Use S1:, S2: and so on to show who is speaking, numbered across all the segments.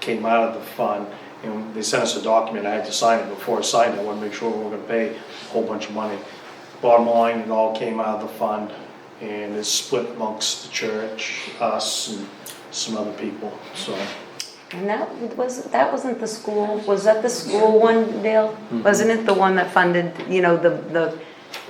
S1: came out of the fund, and they sent us a document, I had to sign it before I signed it, I wanted to make sure we were gonna pay a whole bunch of money. Bottom line, it all came out of the fund, and it's split amongst the church, us, and some other people, so.
S2: And that was, that wasn't the school, was that the school one, Dale?
S3: Mm-hmm.
S2: Wasn't it the one that funded, you know, the, the,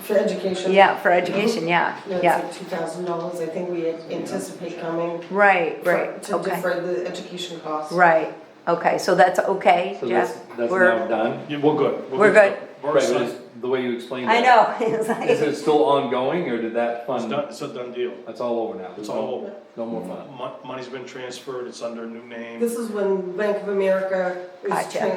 S4: For education.
S2: yeah, for education, yeah,
S4: No, it's
S2: yeah.
S4: like two thousand dollars, I think we anticipate coming.
S2: Right,
S4: for-
S2: right,
S4: To
S2: okay,
S4: defer the education costs.
S2: right, okay, so that's okay,
S3: So that's,
S2: Jeff?
S3: that's
S2: We're-
S3: now done?
S1: Yeah, we're good.
S2: We're good.
S1: We're
S3: Right, but
S1: signed.
S3: it's the way you explained
S2: I
S3: that.
S2: know, it's like-
S3: Is it still ongoing, or did that
S1: It's
S3: fund,
S1: done, it's a done deal,
S3: that's all over now?
S1: it's all over.
S3: No more fund?
S1: Mon- Money's been transferred, it's under a new name.
S4: This is when Bank of America was
S2: Gotcha.
S4: trying,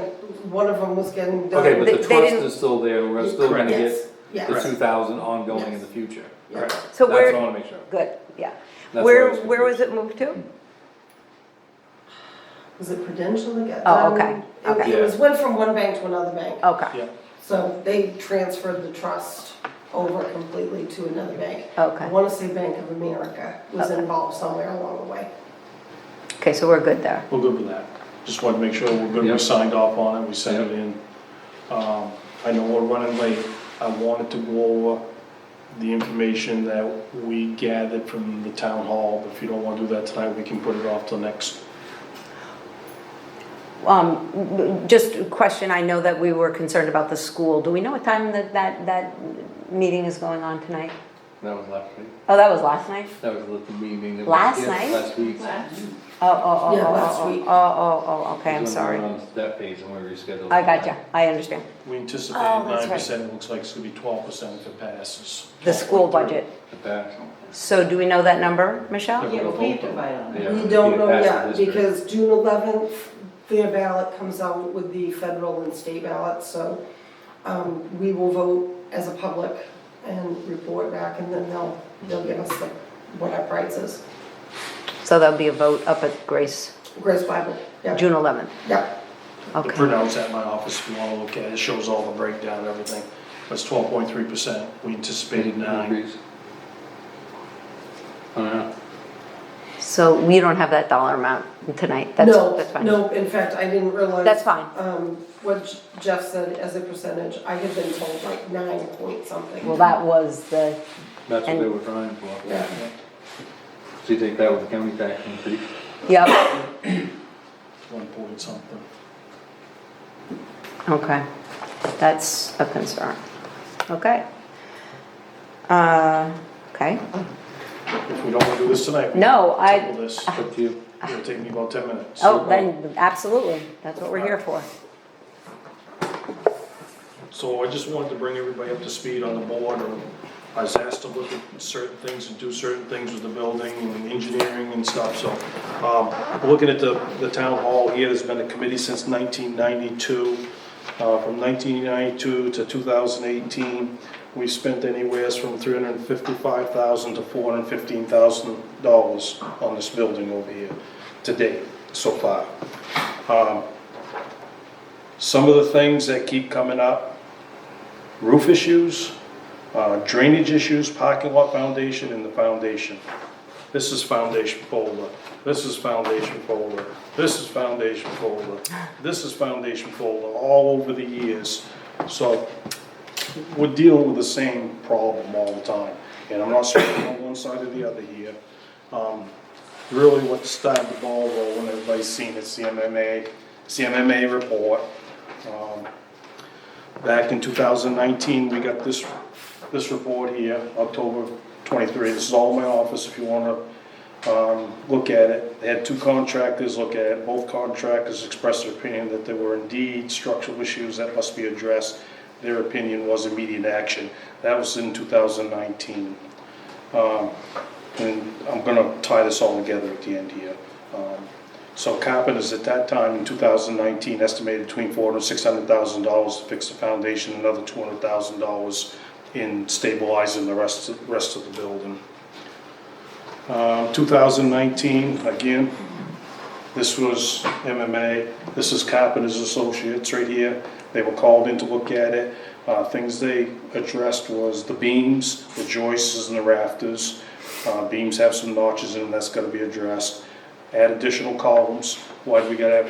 S4: one of them was getting done.
S3: Okay, but
S2: They-
S3: the
S2: they
S3: trust
S2: didn't-
S3: is still there, and we're still gonna
S4: Yes,
S3: get the
S4: yes,
S3: two thousand ongoing in
S4: Yes.
S3: the future.
S2: So
S4: yes.
S3: That's what I
S2: where,
S3: wanna make sure.
S2: good, yeah.
S3: where I
S2: Where,
S3: was
S2: where was it moved to?
S4: Was it Prudential again?
S2: Oh, okay, Oh.
S4: Um,
S2: okay.
S4: It it was, went from one bank to another bank.
S2: Okay,
S1: Yeah,
S4: So they transferred the trust over completely to another bank. I
S2: okay,
S4: wanna say Bank of America was involved somewhere along the way.
S2: okay, so we're good there.
S1: we're good with that. Just wanted to make sure we're good,
S3: Yeah.
S1: we signed off on it, we sent it in. Um, I know we're running late, I wanted to go over the information that we gathered from the town hall. If you don't wanna do that tonight, we can put it off till next.
S2: Um, just a question, I know that we were concerned about the school, do we know what time that, that, that meeting is going on tonight?
S3: That was last week,
S2: Oh, that was last night?
S3: that was the meeting. that was-
S2: Last
S3: yes,
S2: night?
S3: Last week.
S2: Oh, oh, oh,
S4: Yeah,
S2: oh,
S4: last
S2: oh,
S4: week.
S2: oh, oh, oh, okay, I'm
S3: Because when we
S2: sorry.
S3: were on That page, and we rescheduled.
S2: I got you, I understand.
S1: We anticipated
S2: Oh, that's
S1: nine
S2: right.
S1: percent, it looks like it's gonna be twelve percent if it passes.
S2: The school budget.
S3: The back.
S2: So do we know that number, Michelle?
S5: Yeah, but we have to vote on it.
S3: Yeah,
S4: We don't
S3: it
S4: know
S3: passed the
S4: yet,
S3: district.
S4: because June eleventh, their ballot comes out with the federal and state ballot, so um, we will vote as a public and report back, and then they'll, they'll give us the, what our price is.
S2: So there'll be a vote up at Grace,
S4: Grace Bible, yeah,
S2: June 11th,
S4: yeah,
S1: The
S2: okay.
S1: printout's at my office if you wanna look at it, it shows all the breakdown and everything. But It's twelve point three percent, we anticipated nine.
S3: Increase. Oh, I don't know.
S2: So we don't have that dollar amount tonight, that's,
S4: no,
S2: that's fine.
S4: no, in fact, I didn't realize.
S2: That's fine.
S4: Um, what Jeff said as a percentage, I had been told like nine point something.
S2: Well, that was the,
S3: That's what
S2: And-
S3: they were trying for.
S4: Yeah,
S3: So you take that with the county tax increase?
S2: yep,
S1: One point something.
S2: okay. That's a concern, okay. Uh, okay,
S1: If we don't wanna do this tonight, we
S2: no,
S1: can table
S2: I,
S1: this.
S3: It's up to you.
S1: It'll take me about ten minutes.
S2: oh, then, absolutely, that's what we're here for.
S1: So I just wanted to bring everybody up to speed on the board, and I was asked to look at certain things and do certain things with the building and engineering and stuff, so. um, Looking at the, the town hall here, there's been a committee since nineteen ninety-two. Uh, From nineteen ninety-two to two thousand eighteen, we spent anywhere from three hundred and fifty-five thousand to four hundred and fifteen thousand dollars on this building over here to date, so far. Um, Some of the things that keep coming up roof issues, uh, drainage issues, parking lot foundation, and the foundation. This is foundation folder, this is foundation folder, this is foundation folder, this is foundation folder, all over the years. So we're dealing with the same problem all the time, and I'm not speaking on one side or the other here. Um, Really what started the ball rolling, everybody's seen it, CMMA, CMMA report. Um, Back in 2019, we got this, this report here, October 23. This is all in my office if you want to look at it. They had two contractors look at it. Both contractors expressed their opinion that there were indeed structural issues that must be addressed. Their opinion was immediate action. That was in 2019. Um, And I'm going to tie this all together at the end here. Um, So carpenters at that time in 2019 estimated between four hundred six hundred thousand dollars to fix the foundation, another $200,000 in stabilizing the rest, of- rest of the building. Um, 2019, again, this was MMA, this is Carpenters Associates right here. They were called in to look at it. Uh, Things they addressed was the beams, the joists and the rafters. Uh, Beams have some notches in them, that's gotta be addressed. Add additional columns, why do we gotta have